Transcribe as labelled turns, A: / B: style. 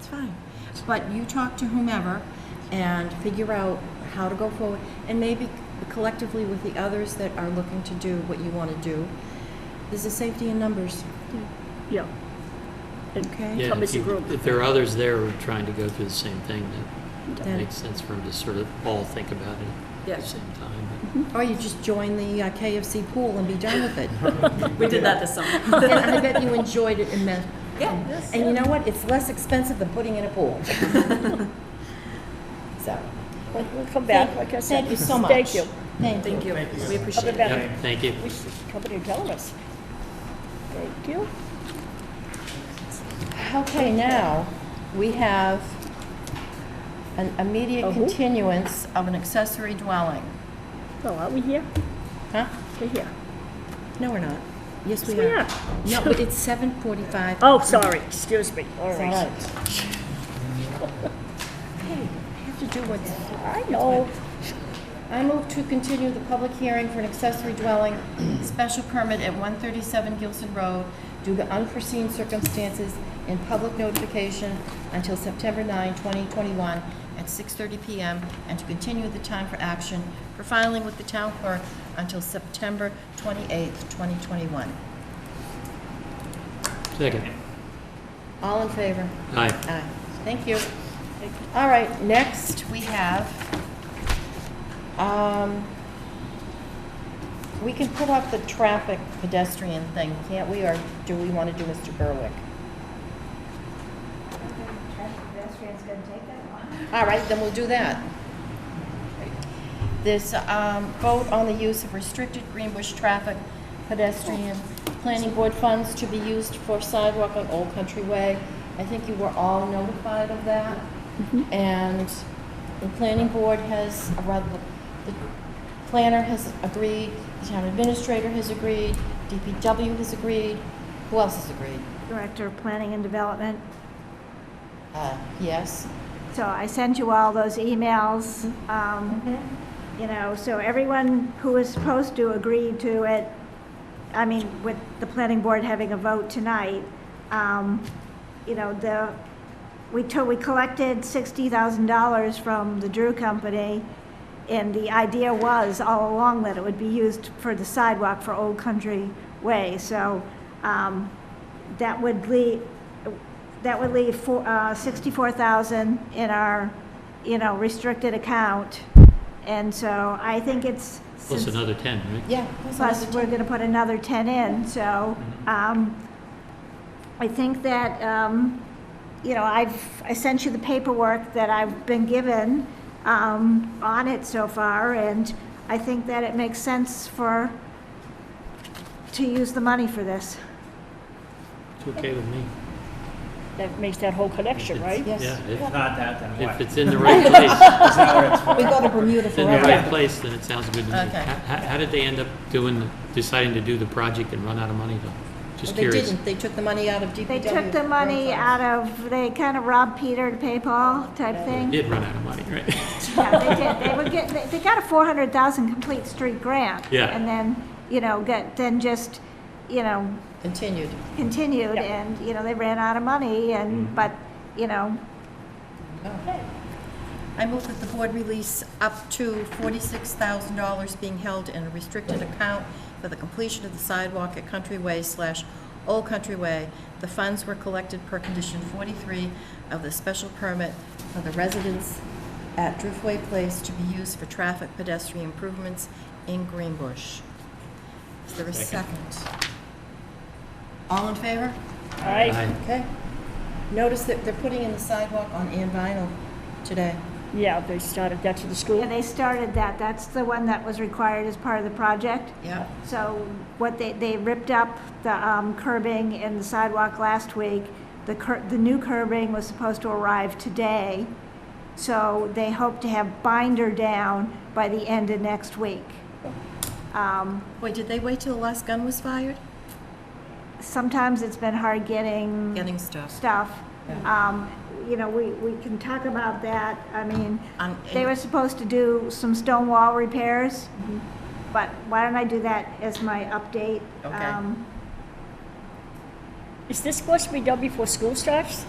A: fine. But you talk to whomever and figure out how to go forward, and maybe collectively with the others that are looking to do what you want to do. There's a safety in numbers,
B: Yeah. And
A: okay?
C: Yeah,
B: Come
C: if
B: as a
C: you-
B: group.
C: If there are others there who are trying to go through the same thing, that
A: Then-
C: makes sense for them to sort of all think about it at the
D: Yes.
C: same time. but-
A: Or you just join the uh, KFC pool and be done with it.
D: We did that this summer.
A: And I bet you enjoyed it immensely.
D: Yeah.
A: And you know what? It's less expensive than putting in a pool. So,
B: We'll we'll come back, like I said.
A: thank you so much.
B: Thank you.
A: Thank you.
D: Thank you. We
B: Other
D: appreciate it.
B: better.
C: Yep, thank you.
B: We should come in and tell us. Thank you.
A: Okay, now, we have an immediate
B: A who?
A: continuance of an accessory dwelling.
B: Oh, are we here?
A: Huh?
B: We're here.
A: No, we're not. Yes, we
B: we
A: are.
B: are.
A: No, but it's 7:45.
B: Oh, sorry, excuse me. All
A: It's all
B: right.
A: right. Hey, I have to do what's
B: I know.
A: I move to continue the public hearing for an accessory dwelling special permit at 137 Gilson Road due to unforeseen circumstances and public notification until September 9, 2021 at 6:30 PM, and to continue the time for action for filing with the town clerk until September 28, 2021.
C: Second.
A: All in favor?
C: Aye.
A: Aye. Thank you. All right, next, we have, um, we can put up the traffic pedestrian thing, can't we, or do we want to do Mr. Berwick? All right, then we'll do that. This, um, vote on the use of restricted Greenbush traffic pedestrian planning board funds to be used for sidewalk on Old Country Way. I think you were all notified of that. And the planning board has, or rather, the the planner has agreed, the town administrator has agreed, DPW has agreed. Who else has agreed?
E: Director of Planning and Development.
A: Uh, yes?
E: So I sent you all those emails, um, you know, so everyone who was supposed to agree to it, I mean, with the planning board having a vote tonight, um, you know, the, we took, we collected $60,000 from the Drew Company, and the idea was all along that it would be used for the sidewalk for Old Country Way, so um, that would leave, that would leave four- uh, 64,000 in our, you know, restricted account, and so I think it's.
C: Plus
E: since-
C: another 10, right?
A: Yeah. that's
E: Plus,
A: another
E: we're gonna put another ten in, so,
C: Mm-hmm.
E: um, I think that, um, you know, I've, I sent you the paperwork that I've been given, um, on it so far, and I think that it makes sense for, to use the money for this.
C: It's okay with me.
B: That makes that whole connection,
C: It's-
B: right?
A: Yes.
C: Yeah,
F: Not that, then
C: if,
F: what?
C: if it's in the right place,
F: That's not what it's for.
A: We go to Bermuda
C: if it's in the right
A: forever.
C: place, then it sounds good to me.
A: Okay.
C: How, how did they end up doing, the- deciding to do the project and run out of money though?
A: Well,
C: Just
A: They
C: curious.
A: didn't, they took the money out of DPW.
E: They took the money out of, they kind of robbed Peter to pay Paul type
C: They
E: thing.
C: Did run out of money, right?
E: Yeah, they did, they were get, they- they got a four hundred thousand complete street grant.
C: Yeah.
E: And then, you know, get, then just, you know,
A: Continued.
E: continued,
B: Yeah.
E: and, you know, they ran out of money, and, but, you know,
A: I move that the board release up to $46,000 being held in a restricted account for the completion of the sidewalk at Country Way slash Old Country Way. The funds were collected per condition 43 of the special permit for the residents at Driftway Place to be used for traffic pedestrian improvements in Greenbush. Is there a second? All in favor?
B: All right,
C: Aye.
A: Okay. Notice that they're putting in the sidewalk on Ann Vinyl today.
B: yeah, they started that to the
E: yeah,
B: school.
E: they started that, that's the one that was required as part of the project.
A: Yeah.
E: So what they, they ripped up the um, curbing and the sidewalk last week. The cur, the new curbing was supposed to arrive today, so they hope to have binder down by the end of next week. Um,
A: Wait, did they wait till the last gun was fired?
E: Sometimes it's been hard getting.
A: Getting stuff.
E: stuff. Um, You know, we, we can talk about that. I mean,
A: Um,
E: they were supposed to do some stone wall repairs, but why don't I do that as my update?
A: Okay.
E: Um,
B: Is this supposed to be done before school starts?